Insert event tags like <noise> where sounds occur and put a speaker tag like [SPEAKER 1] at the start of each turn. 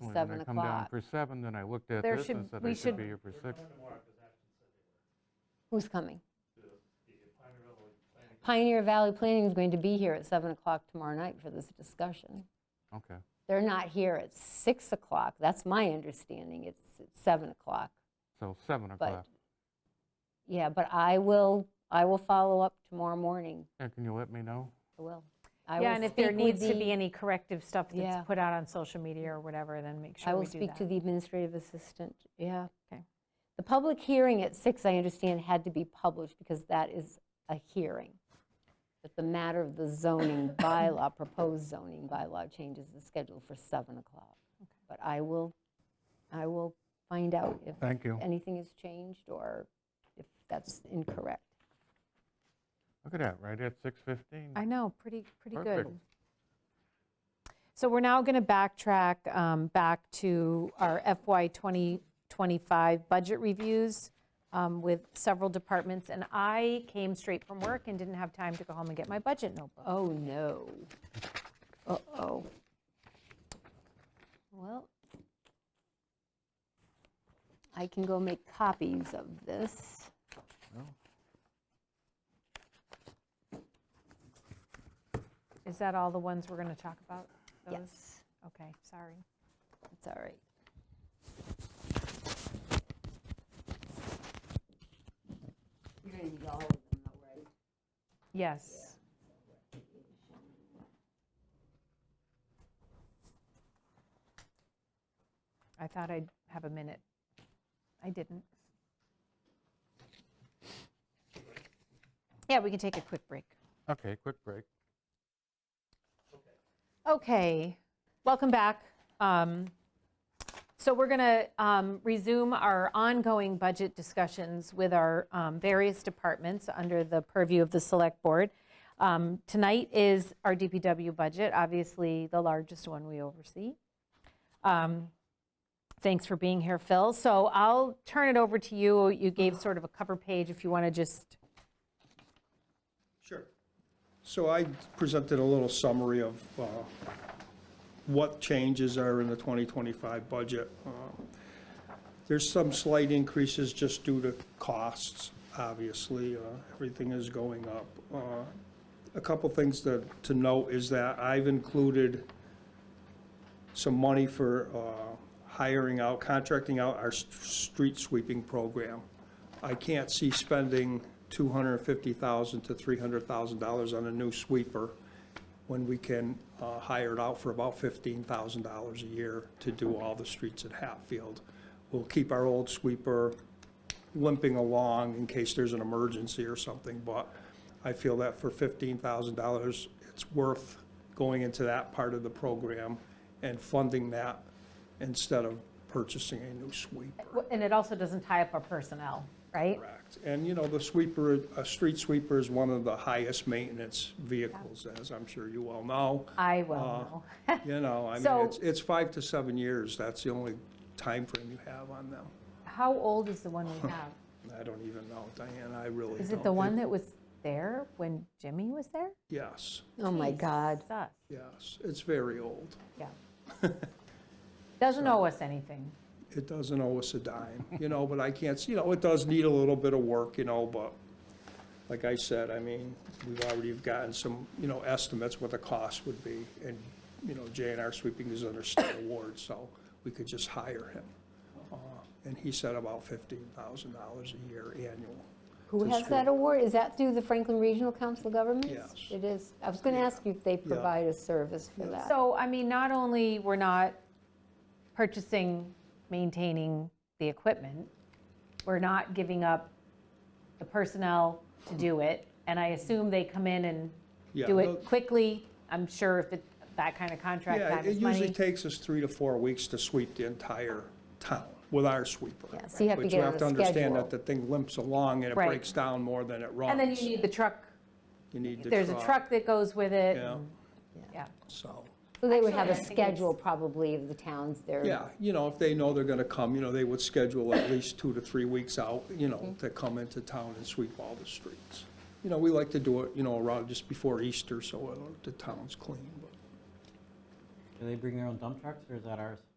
[SPEAKER 1] when
[SPEAKER 2] seven
[SPEAKER 1] I come down
[SPEAKER 2] o'clock.
[SPEAKER 1] for seven, then I looked at
[SPEAKER 2] There
[SPEAKER 1] this
[SPEAKER 2] should-
[SPEAKER 1] and said
[SPEAKER 2] we
[SPEAKER 1] I should
[SPEAKER 2] should-
[SPEAKER 1] be here for six.
[SPEAKER 2] Who's coming? Pioneer Valley Planning is going to be here at 7 o'clock tomorrow night for this discussion.
[SPEAKER 1] Okay,
[SPEAKER 2] They're not here at 6 o'clock. That's my understanding. It's at 7 o'clock.
[SPEAKER 1] so seven o'clock.
[SPEAKER 2] Yeah, but I will, I will follow up tomorrow morning.
[SPEAKER 1] Yeah, can you let me know?
[SPEAKER 2] I will. I will
[SPEAKER 3] Yeah, and if there
[SPEAKER 2] speak with
[SPEAKER 3] needs to
[SPEAKER 2] the-
[SPEAKER 3] be any corrective stuff
[SPEAKER 2] Yeah.
[SPEAKER 3] that's put out on social media or whatever, then make
[SPEAKER 2] I
[SPEAKER 3] sure
[SPEAKER 2] will
[SPEAKER 3] we do
[SPEAKER 2] speak to
[SPEAKER 3] that.
[SPEAKER 2] the administrative assistant, yeah.
[SPEAKER 3] Okay.
[SPEAKER 2] The public hearing at six, I understand, had to be published because that is a hearing. But the matter of the
[SPEAKER 3] <coughs>
[SPEAKER 2] zoning bylaw, proposed zoning bylaw changes is scheduled for 7 o'clock. But I will, I will find out if
[SPEAKER 1] Thank you.
[SPEAKER 2] anything has changed or if that's incorrect.
[SPEAKER 1] Look at that, right at 6:15.
[SPEAKER 3] I know, pretty, pretty good.
[SPEAKER 1] Perfect.
[SPEAKER 3] So we're now going to backtrack um, back to our FY 2025 budget reviews um, with several departments. And I came straight from work and didn't have time to go home and get my budget notebook.
[SPEAKER 2] Oh, no. Uh-oh. Well, I can go make copies of this.
[SPEAKER 3] Is that all the ones we're going to talk about? Those?
[SPEAKER 2] Yes,
[SPEAKER 3] Okay, sorry.
[SPEAKER 2] it's all right. You're going to need all of them, though, right?
[SPEAKER 3] Yes. I thought I'd have a minute. I didn't. Yeah, we can take a quick break.
[SPEAKER 1] Okay, quick break.
[SPEAKER 3] Okay, welcome back. Um, So we're going to resume our ongoing budget discussions with our um, various departments under the purview of the Select Board. Um, Tonight is our DPW budget, obviously the largest one we oversee. Um, Thanks for being here, Phil. So I'll turn it over to you. You gave sort of a cover page if you want to just,
[SPEAKER 4] Sure. So I presented a little summary of uh, what changes are in the 2025 budget. Uh, There's some slight increases just due to costs, obviously. uh, Everything is going up. Uh, A couple things to, to note is that I've included some money for uh, hiring out, contracting out our s- street sweeping program. I can't see spending $250,000 to $300,000 on a new sweeper when we can uh, hire it out for about $15,000 a year to do all the streets at Hatfield. We'll keep our old sweeper limping along in case there's an emergency or something, but I feel that for $15,000, it's worth going into that part of the program and funding that instead of purchasing a new sweeper.
[SPEAKER 3] and it also doesn't tie up our personnel, right?
[SPEAKER 4] Correct. And, you know, the sweeper, a street sweeper is one of the highest maintenance vehicles, as I'm sure you all know. Uh,
[SPEAKER 3] I will know. <laughs>
[SPEAKER 4] You know, I mean,
[SPEAKER 3] So-
[SPEAKER 4] it's, it's five to seven years. That's the only time frame you have on them.
[SPEAKER 3] How old is the one we
[SPEAKER 4] <laughs>
[SPEAKER 3] have?
[SPEAKER 4] I don't even know, Diane, I really don't.
[SPEAKER 3] Is it the one that was there when Jimmy was there?
[SPEAKER 4] Yes,
[SPEAKER 2] Oh, my God.
[SPEAKER 3] It's us,
[SPEAKER 4] yes. It's very old.
[SPEAKER 3] yeah. <laughs> Doesn't owe us anything.
[SPEAKER 4] It doesn't owe us a dime, you know, but I can't, see- you know, it does need a little bit of work, you know, but like I said, I mean, we've already gotten some, you know, estimates what the cost would be. And, you know, J and R Sweeping is under state award, so we could just hire him. Uh, And he said about $15,000 a year annual.
[SPEAKER 2] Who
[SPEAKER 4] to
[SPEAKER 2] has
[SPEAKER 4] screw-
[SPEAKER 2] that award? Is that through the Franklin Regional Council of Governments?
[SPEAKER 4] Yes.
[SPEAKER 2] It is. I was going to ask you if they provide a service for that.
[SPEAKER 3] So, I mean, not only we're not purchasing, maintaining the equipment, we're not giving up the personnel to do it, and I assume they come in and
[SPEAKER 4] Yeah,
[SPEAKER 3] do
[SPEAKER 4] the-
[SPEAKER 3] it quickly. I'm sure if it- that kind of contract
[SPEAKER 4] Yeah,
[SPEAKER 3] time
[SPEAKER 4] it
[SPEAKER 3] is
[SPEAKER 4] usually
[SPEAKER 3] money.
[SPEAKER 4] takes us three to four weeks to sweep the entire town with our sweeper.
[SPEAKER 2] Yeah, so you have to
[SPEAKER 4] But
[SPEAKER 2] get
[SPEAKER 4] you
[SPEAKER 2] on
[SPEAKER 4] have
[SPEAKER 2] a
[SPEAKER 4] to understand that
[SPEAKER 2] schedule.
[SPEAKER 4] the thing limps along and it
[SPEAKER 3] Right.
[SPEAKER 4] breaks down more than it runs.
[SPEAKER 3] And then you need the truck,
[SPEAKER 4] You need the
[SPEAKER 3] there's a truck that goes with it.
[SPEAKER 4] Yeah,
[SPEAKER 3] and- Yeah.
[SPEAKER 4] so,
[SPEAKER 2] So they would have a
[SPEAKER 3] Actually, I think it's-
[SPEAKER 2] schedule probably of the towns they're.
[SPEAKER 4] yeah, you know, if they know they're gonna come, you know, they would schedule at least two to three weeks out, you know,
[SPEAKER 2] Mm-hmm.
[SPEAKER 4] to come into town and sweep all the streets. You know, we like to do it, you know, around just before Easter, so uh, the town's clean, but
[SPEAKER 5] Do they bring their own dump trucks, or is that ours?